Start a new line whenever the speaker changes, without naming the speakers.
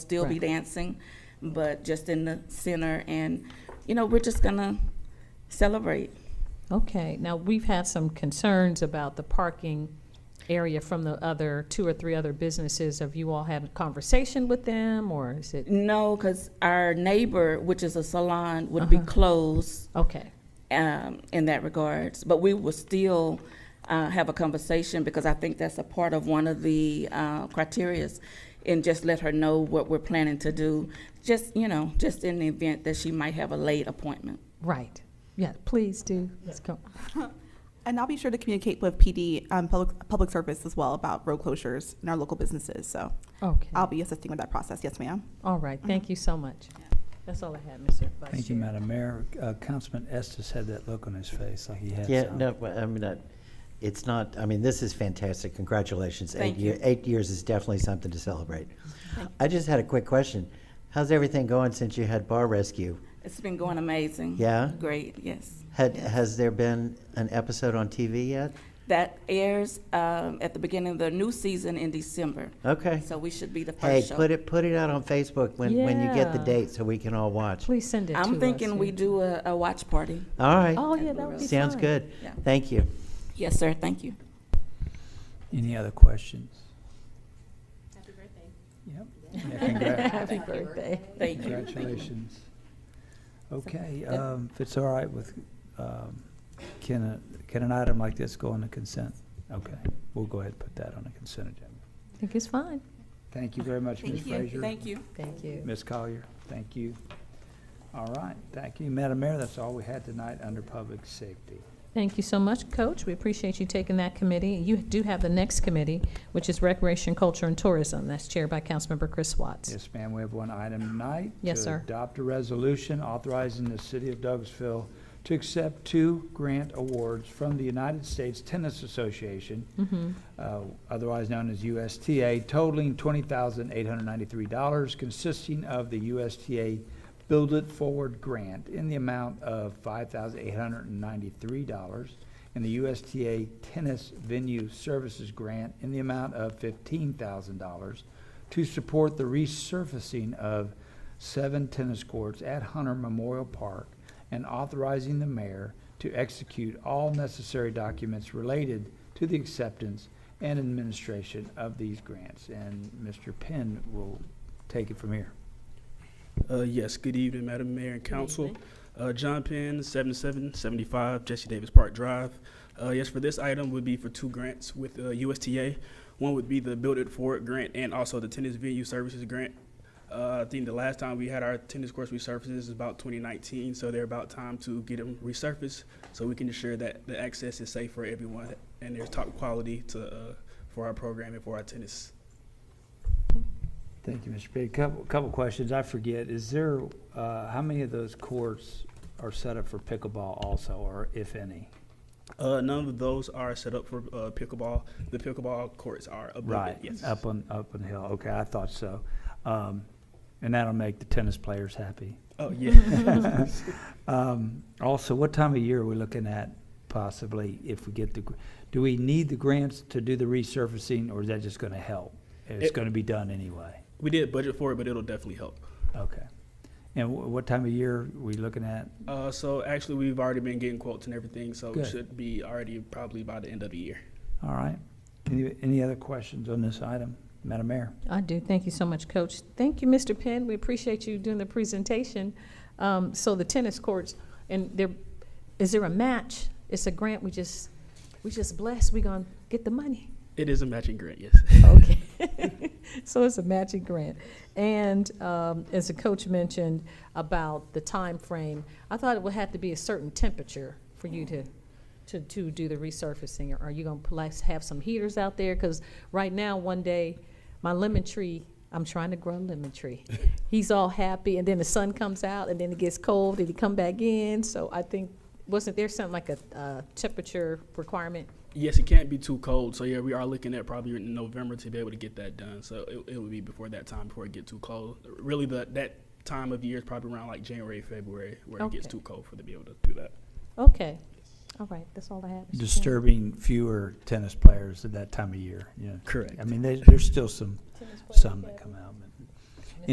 still be
Right.
dancing, but just in the center. And, you know, we're just gonna celebrate.
Okay, now, we've had some concerns about the parking area from the other, two or three other businesses. Have you all had a conversation with them, or is it,
No, because our neighbor, which is a salon, would be
Uh-huh.
closed
okay,
um, in that regards. But we will still uh, have a conversation because I think that's a part of one of the uh, criterias. And just let her know what we're planning to do, just, you know, just in the event that she might have a late appointment.
right. Yeah, please do. Let's go.
And I'll be sure to communicate with PD, um, public, public service as well about road closures in our local businesses. So
Okay,
I'll be assisting with that process. Yes, ma'am.
all right, thank you so much. That's all I had, Mr. Vice
Thank you,
Chair.
Madam Mayor. Uh, Councilman Estes had that look on his face, like he had
Yeah,
something.
no, but I mean, uh, it's not, I mean, this is fantastic. Congratulations.
Thank
Eight year-
you.
Eight years is definitely something to celebrate. I just had a quick question. How's everything going since you had Bar Rescue?
It's been going amazing.
Yeah?
Great, yes.
Had, has there been an episode on TV yet?
That airs um, at the beginning of the new season in December.
Okay.
So we should be the
Hey,
first show.
put it, put it out on Facebook when, when you get the
Yeah.
date so we can all watch.
Please send it to us.
I'm thinking we
yeah.
do a, a watch party.
All right.
Oh, yeah, that would be
Sounds
fine.
good.
Yeah.
Thank you.
Yes, sir. Thank you.
Any other questions? Happy birthday. Yep. Yeah, congra-
Happy birthday.
Thank you.
Congratulations. Okay, um, if it's all right with, um, can, a- can an item like this go on the consent? Okay, we'll go ahead and put that on the consent agenda.
I think it's fine.
Thank you very much, Ms. Frazier.
Thank you.
Thank you.
Ms. Collier, thank you. All right, thank you. Madam Mayor, that's all we had tonight under public safety.
Thank you so much, Coach. We appreciate you taking that committee. You do have the next committee, which is Recreation, Culture, and Tourism. That's chaired by Councilmember Chris Watts.
Yes, ma'am, we have one item tonight.
Yes,
to
sir.
adopt a resolution authorizing the city of Douglasville to accept two grant awards from the United States Tennis Association,
Mm-hmm.
uh, otherwise known as USTA, totaling twenty thousand eight hundred ninety-three dollars, consisting of the USTA Build It Forward Grant in the amount of five thousand eight hundred and ninety-three dollars, and the USTA Tennis Venue Services Grant in the amount of fifteen thousand dollars to support the resurfacing of seven tennis courts at Hunter Memorial Park and authorizing the mayor to execute all necessary documents related to the acceptance and administration of these grants. And Mr. Penn will take it from here.
Uh, yes, good evening, Madam Mayor and Council. Uh, John Penn, seventy-seven seventy-five Jesse Davis Park Drive. Uh, yes, for this item would be for two grants with uh, USTA. One would be the Build It Forward Grant and also the Tennis Venue Services Grant. Uh, I think the last time we had our tennis course resurfaces is about twenty nineteen, so they're about time to get them resurfaced so we can ensure that the access is safe for everyone and there's top quality to, uh, for our program and for our tennis.
Thank you, Mr. Penn. Couple, couple questions. I forget, is there, uh, how many of those courts are set up for pickleball also, or if any?
Uh, none of those are set up for uh, pickleball. The pickleball courts are above
Right,
it. Yes.
up on, up on the hill. Okay, I thought so. Um, and that'll make the tennis players happy.
Oh yeah.
Um, also, what time of year are we looking at possibly if we get the, gr- do we need the grants to do the resurfacing or is that just gonna help? It's
It-
gonna be done anyway.
we did budget for it, but it'll definitely help.
Okay. And wh- what time of year are we looking at?
Uh, so actually, we've already been getting quotes and everything, so
Good.
it should be already probably by the end of the year.
All right. Any, any other questions on this item? Madam Mayor?
I do. Thank you so much, Coach. Thank you, Mr. Penn. We appreciate you doing the presentation. Um, so the tennis courts, and there, is there a match? It's a grant. We just, we just blessed. We gonna get the money.
It is a matching grant, yes.
Okay. So it's a matching grant. And um, as the coach mentioned about the time frame, I thought it would have to be a certain temperature for you to, to, to do the resurfacing. Are you gonna perhaps have some heaters out there? Because right now, one day, my lemon tree, I'm trying to grow a lemon tree. He's all happy, and then the sun comes out, and then it gets cold, and he come back in. So I think, wasn't there something like a, uh temperature requirement?
Yes, it can't be too cold, so yeah, we are looking at probably in November to be able to get that done. So it, it would be before that time before it get too cold. Really, the that time of year is probably around like January, February, where it gets
Okay.
too cold for to be able to do that.
Okay. All right, that's all I have. Mr. Chairman.
Disturbing fewer tennis players at that time of year, yeah.
Correct.
I mean, there's, there's still some, some that come out, but